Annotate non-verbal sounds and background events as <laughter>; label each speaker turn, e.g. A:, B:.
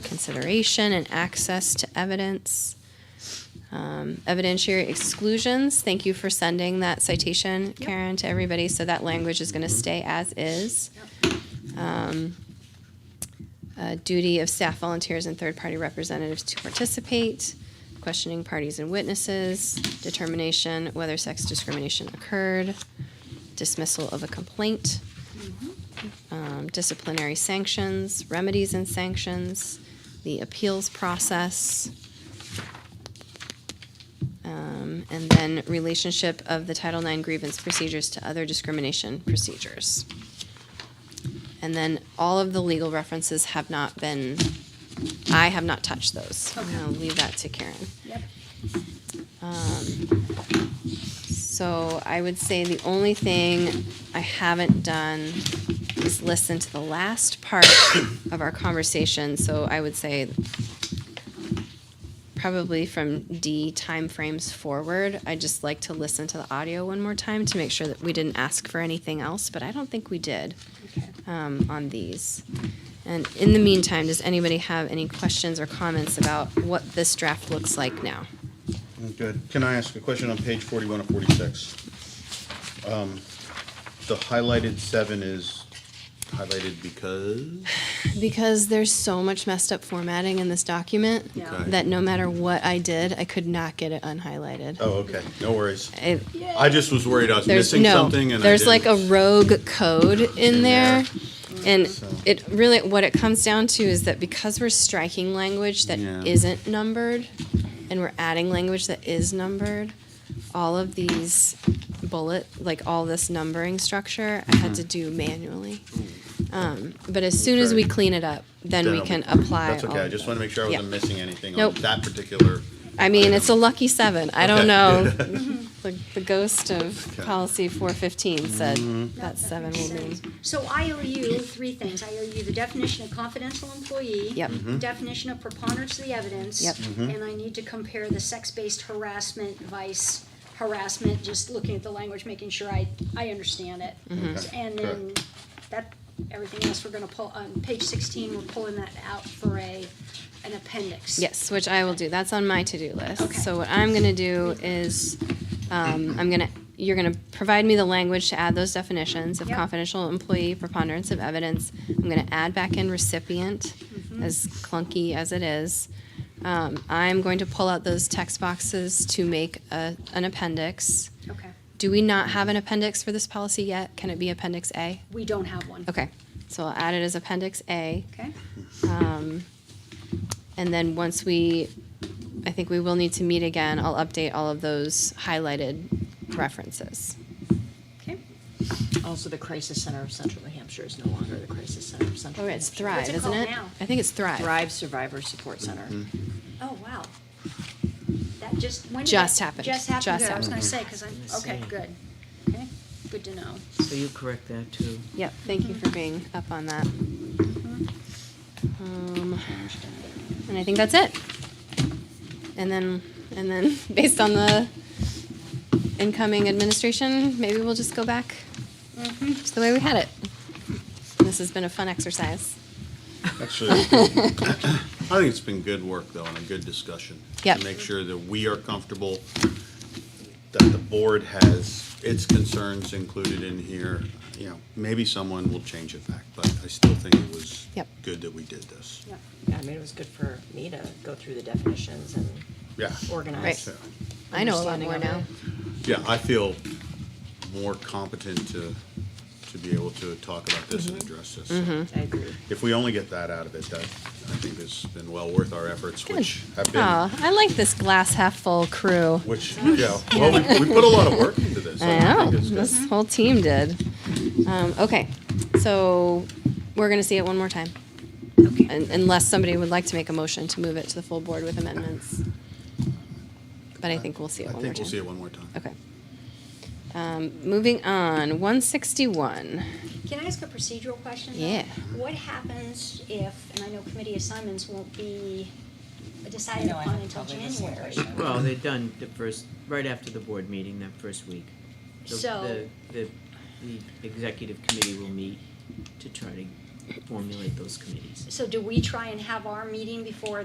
A: consideration and access to evidence. Um, evidentiary exclusions, thank you for sending that citation, Karen, to everybody, so that language is gonna stay as is. Um, uh, duty of staff volunteers and third-party representatives to participate, questioning parties and witnesses, determination whether sex discrimination occurred, dismissal of a complaint, um, disciplinary sanctions, remedies and sanctions, the appeals process, um, and then relationship of the Title IX grievance procedures to other discrimination procedures. And then all of the legal references have not been, I have not touched those. I'm gonna leave that to Karen.
B: Yep.
A: So I would say the only thing I haven't done is listen to the last part <coughs> of our conversation. So I would say probably from D timeframes forward, I'd just like to listen to the audio one more time to make sure that we didn't ask for anything else, but I don't think we did um, on these. And in the meantime, does anybody have any questions or comments about what this draft looks like now?
C: Good. Can I ask a question on page forty-one of forty-six? Um, The highlighted seven is highlighted because,
A: Because there's so much messed up formatting in this document
B: Yeah.
C: Okay.
A: that no matter what I did, I could not get it unhighlighted.
C: oh, okay, no worries.
A: It-
C: I just was worried I was
A: there's
C: missing
A: no,
C: something and I
A: there's like a
C: didn't-
A: rogue code in
C: In
A: there,
C: there.
A: and
C: So-
A: it really what it comes down to is that because we're striking language that
C: Yeah.
A: not numbered, and we're adding language that is numbered, all of these bullet like all this numbering structure I
C: Mm-hmm.
A: had to do manually. Um, but as soon as we
C: Okay.
A: clean it up, then
C: Then
A: we
C: I'll-
A: can apply.
C: That's
A: all
C: okay, I
A: of
C: just
A: them.
C: want to make sure I
A: Yeah.
C: wasn't missing anything on
A: Nope.
C: that particular.
A: I mean,
C: item.
A: it's a lucky seven. I don't
C: Okay.
A: know. <laughs> the, the ghost of
C: Okay. Mm-hmm.
A: policy 415 said that
B: No,
A: seven
B: makes
A: will mean.
B: sense. So I owe you three things. I owe you the definition of confidential employee.
A: Yep. Mhm.
B: Definition of preponderance of the evidence.
A: Yep.
B: And I need to compare the sex-based harassment, vice harassment, just looking at the language, making sure I, I understand it.
A: Mm-hmm.
C: Mhm.
B: And then that, everything else, we're gonna pull, on page sixteen, we're pulling that out for a, an appendix.
A: Yes, which I will do. That's on my to-do list.
B: Okay.
A: So what I'm gonna do is, um, I'm gonna, you're gonna provide me the language to add those definitions of
B: Yep.
A: confidential employee, preponderance of evidence. I'm gonna add back in recipient, as clunky as it is. Um, I'm going to pull out those text boxes to make a, an appendix.
B: Okay.
A: Do we not have an appendix for this policy yet? Can it be appendix A?
B: We don't have one.
A: Okay, so I'll add it as appendix A.
B: Okay?
A: And then once we, I think we will need to meet again, I'll update all of those highlighted references.
B: Okay.
D: Also, the Crisis Center of Central New Hampshire is no longer the Crisis Center of Central
A: Or
D: New
A: Oh, it's
D: Hampshire.
A: Thrive,
B: What's it
A: isn't
B: called
A: it?
B: now?
A: I think it's Thrive.
D: Thrive Survivor Support Center.
B: Oh, wow. That just, when did
A: Just
B: that-
A: happened.
B: Just happened,
A: Just
B: good. I was gonna
A: happened.
B: say, cause I'm, okay,
E: Same.
B: good. Okay, good to know.
E: So you correct that too.
A: Yep, thank you for being up on that. Um, And I think that's it. And then, and then, <laughs> based on the incoming administration, maybe we'll just go back to the way we had it. This has been a fun exercise. <laughs>
C: Actually, I think it's been good work though and a good discussion.
A: Yep.
C: To make sure that we are comfortable, that the board has its concerns included in here. You know, maybe someone will change it back, but I still think it was
A: Yep.
C: good that we did this.
B: Yeah.
D: Yeah, I mean, it was good for me to go through the definitions and
C: Yeah.
D: organize.
C: So,
A: I know a lot
D: Understanding
A: more
D: of
A: now.
D: it.
C: Yeah, I feel more competent to, to be able to talk about this
A: Mm-hmm.
C: and address this. So
D: I agree.
C: If we only get that out of it, that, I think has been well worth our efforts, which have been
A: Oh, I like this glass half full crew.
C: Which, yeah, well, we, we put a lot of work into this.
A: I
C: don't
A: know,
C: think it's good.
A: this whole team did. Um, okay, so we're gonna see it one more time. Un- Unless somebody would like to make a motion to move it to the full board with amendments. But I think we'll see it
C: I
A: one more
C: think we'll see it
A: time.
C: one more time.
A: Okay. Um, moving on, one sixty-one.
B: Can I ask a procedural question? though?
A: Yeah.
B: What happens if, and I know committee assignments won't be decided
D: No, I
B: upon
D: have
B: until
D: probably the same
B: January?
D: question.
E: Well, they're done the first, right after the board meeting, that first week. The-
B: So-
E: The, the, the executive committee will meet to try to formulate those committees.
B: So do we try and have our meeting before